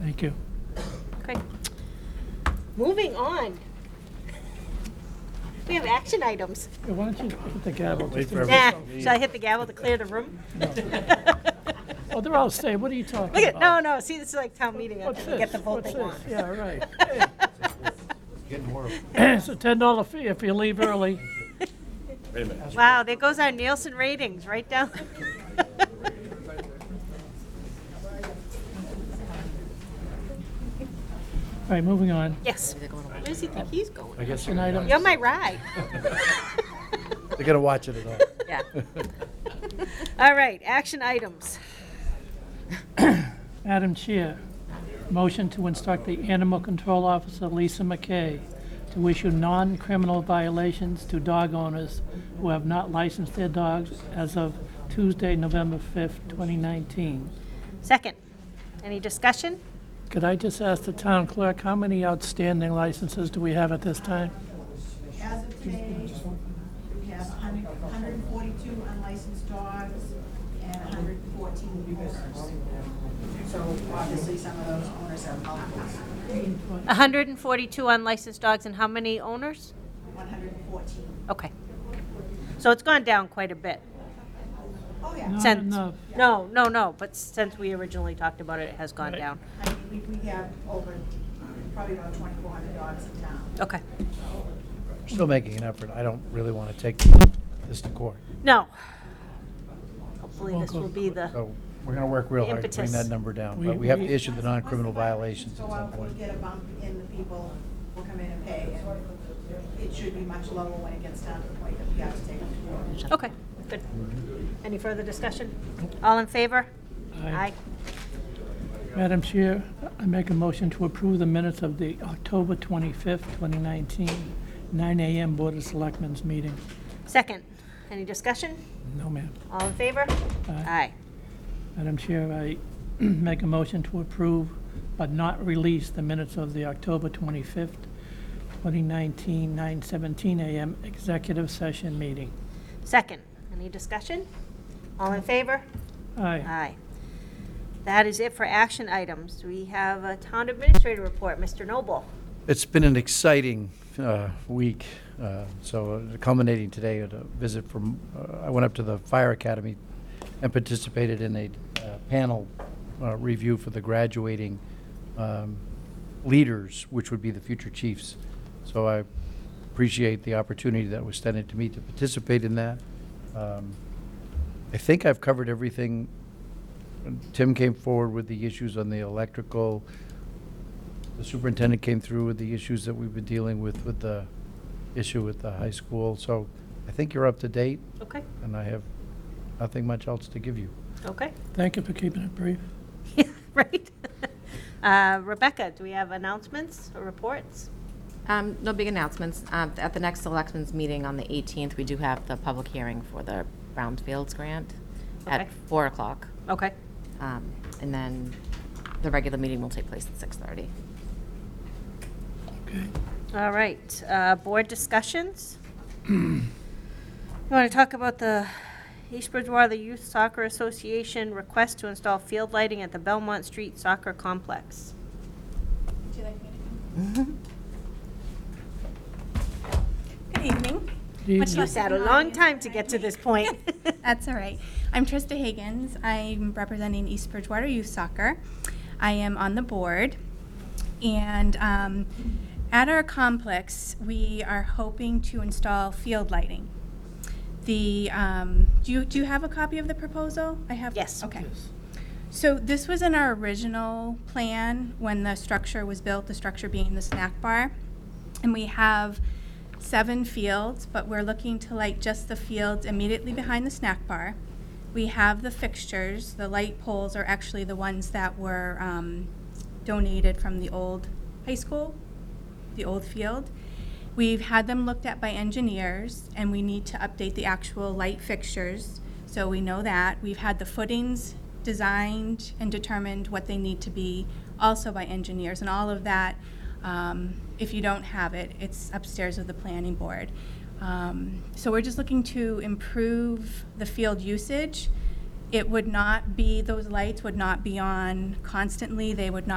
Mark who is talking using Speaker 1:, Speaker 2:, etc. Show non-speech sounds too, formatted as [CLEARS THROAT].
Speaker 1: Thank you.
Speaker 2: Okay. Moving on. We have action items.
Speaker 1: Hey, Why don't you hit the gavel?
Speaker 3: Wait
Speaker 1: just
Speaker 3: for
Speaker 1: in-
Speaker 3: everyone.
Speaker 2: Nah, should I hit the gavel to clear the room?
Speaker 1: Oh, they're all staying. What are you talking about?
Speaker 2: [LAUGHS] Look at, no, no, see, this is like town meeting, I
Speaker 1: What's
Speaker 2: can get the
Speaker 1: this?
Speaker 2: vote
Speaker 1: What's
Speaker 2: they want.
Speaker 1: this? Yeah, right. [COUGHS]
Speaker 3: Getting more.
Speaker 1: It's a ten dollar fee if you leave early.
Speaker 3: Wait a
Speaker 2: [LAUGHS]
Speaker 3: minute.
Speaker 2: Wow, there goes our Nielsen ratings, right down. [LAUGHS]
Speaker 1: All right, moving on.
Speaker 2: Yes. Where does he think he's
Speaker 3: I
Speaker 2: going?
Speaker 3: guess
Speaker 1: An item.
Speaker 2: You're my ride.
Speaker 3: They're gonna watch it at all.
Speaker 2: Yeah. All right, action items.
Speaker 1: Madam Chair, motion to instruct the Animal Control Officer Lisa McKay to issue non-criminal violations to dog owners who have not licensed their dogs as of Tuesday, November 5th, 2019.
Speaker 2: Second, any discussion?
Speaker 1: Could I just ask the town clerk, how many outstanding licenses do we have at this time?
Speaker 4: As of today, we have 100 142 unlicensed dogs and 114 owners. So obviously, some of those owners are multiples,
Speaker 2: 142 unlicensed dogs and how many owners?
Speaker 4: 114.
Speaker 2: Okay. So it's gone down quite a bit
Speaker 4: Oh, yeah.
Speaker 1: Not
Speaker 2: since.
Speaker 1: enough.
Speaker 2: Um, No, no, no, but since we originally talked about it, it has gone down.
Speaker 4: I mean, we, we have over, probably about 2,400 dogs in town.
Speaker 2: Okay.
Speaker 3: We're [LAUGHS] Still making an effort. I don't really want to take this to court.
Speaker 2: No. Hopefully this will
Speaker 1: Welcome.
Speaker 2: be the,
Speaker 3: So we're gonna work real hard to bring
Speaker 2: Impetus.
Speaker 3: that number down,
Speaker 1: We-
Speaker 3: but we have to
Speaker 1: we-
Speaker 3: issue the non-criminal violations
Speaker 4: So
Speaker 3: at
Speaker 4: uh,
Speaker 3: some
Speaker 4: we'll
Speaker 3: point.
Speaker 4: get a bump in the people will come in and pay, and it should be much lower when it gets down to the point that we have to take them to court.
Speaker 2: okay, good. Any further discussion? All in favor?
Speaker 1: Aye. Madam Chair, I make a motion to approve the minutes of the October 25th, 2019, 9 AM Board of Selectmen's meeting.
Speaker 2: Second, any discussion?
Speaker 1: No, ma'am.
Speaker 2: All in favor? Aye.
Speaker 1: Madam Chair, I [CLEARS THROAT] make a motion to approve but not release the minutes of the October 25th, 2019, 9:17 a.m. executive session meeting.
Speaker 2: Second, any discussion? All in favor?
Speaker 1: Aye.
Speaker 2: Aye. That is it for action items. We have a town administrator report, Mr. Noble.
Speaker 3: It's been an exciting uh, week, uh, so uh, culminating today at a visit from, uh, I went up to the Fire Academy and participated in a uh, panel uh, review for the graduating um, leaders, which would be the future chiefs. So I appreciate the opportunity that was extended to me to participate in that. Um, I think I've covered everything. Tim came forward with the issues on the electrical, the superintendent came through with the issues that we've been dealing with, with the issue with the high school. So I think you're up to date,
Speaker 2: Okay,
Speaker 3: and I have nothing much else to give you.
Speaker 2: okay.
Speaker 1: Thank you for keeping it brief.
Speaker 2: Yeah, [LAUGHS] Right? Uh, Rebecca, do we have announcements or reports?
Speaker 5: Um, No big announcements. Um, At the next selectmen's meeting on the 18th, we do have the public hearing for the Brownfields grant
Speaker 2: Okay.
Speaker 5: at 4 o'clock.
Speaker 2: Okay.
Speaker 5: Um, And then the regular meeting will take place at 6:30.
Speaker 2: All right, uh, board discussions? You want to talk about the East Bridgewater Youth Soccer Association request to install field lighting at the Belmont Street Soccer Complex? [LAUGHS]
Speaker 6: Good evening.
Speaker 1: Good evening.
Speaker 2: You
Speaker 6: Much love to
Speaker 2: sat a
Speaker 6: the
Speaker 2: long
Speaker 6: audience.
Speaker 2: time to get to this [LAUGHS] point.
Speaker 6: [LAUGHS] That's all right. I'm Trista Higgins. I'm representing East Bridgewater Youth Soccer. I am on the board. And um, at our complex, we are hoping to install field lighting. The, um, do you, do you have a copy of the proposal? I have.
Speaker 2: Yes.
Speaker 6: Okay. So this was in our original plan when the structure was built, the structure being the snack bar. And we have seven fields, but we're looking to light just the fields immediately behind the snack bar. We have the fixtures, the light poles are actually the ones that were um, donated from the old high school, the old field. We've had them looked at by engineers, and we need to update the actual light fixtures, so we know that. We've had the footings designed and determined what they need to be, also by engineers, and all of that. um, If you don't have it, it's upstairs with the planning board. Um, So we're just looking to improve the field usage. It would not be, those lights would not be on constantly, they would not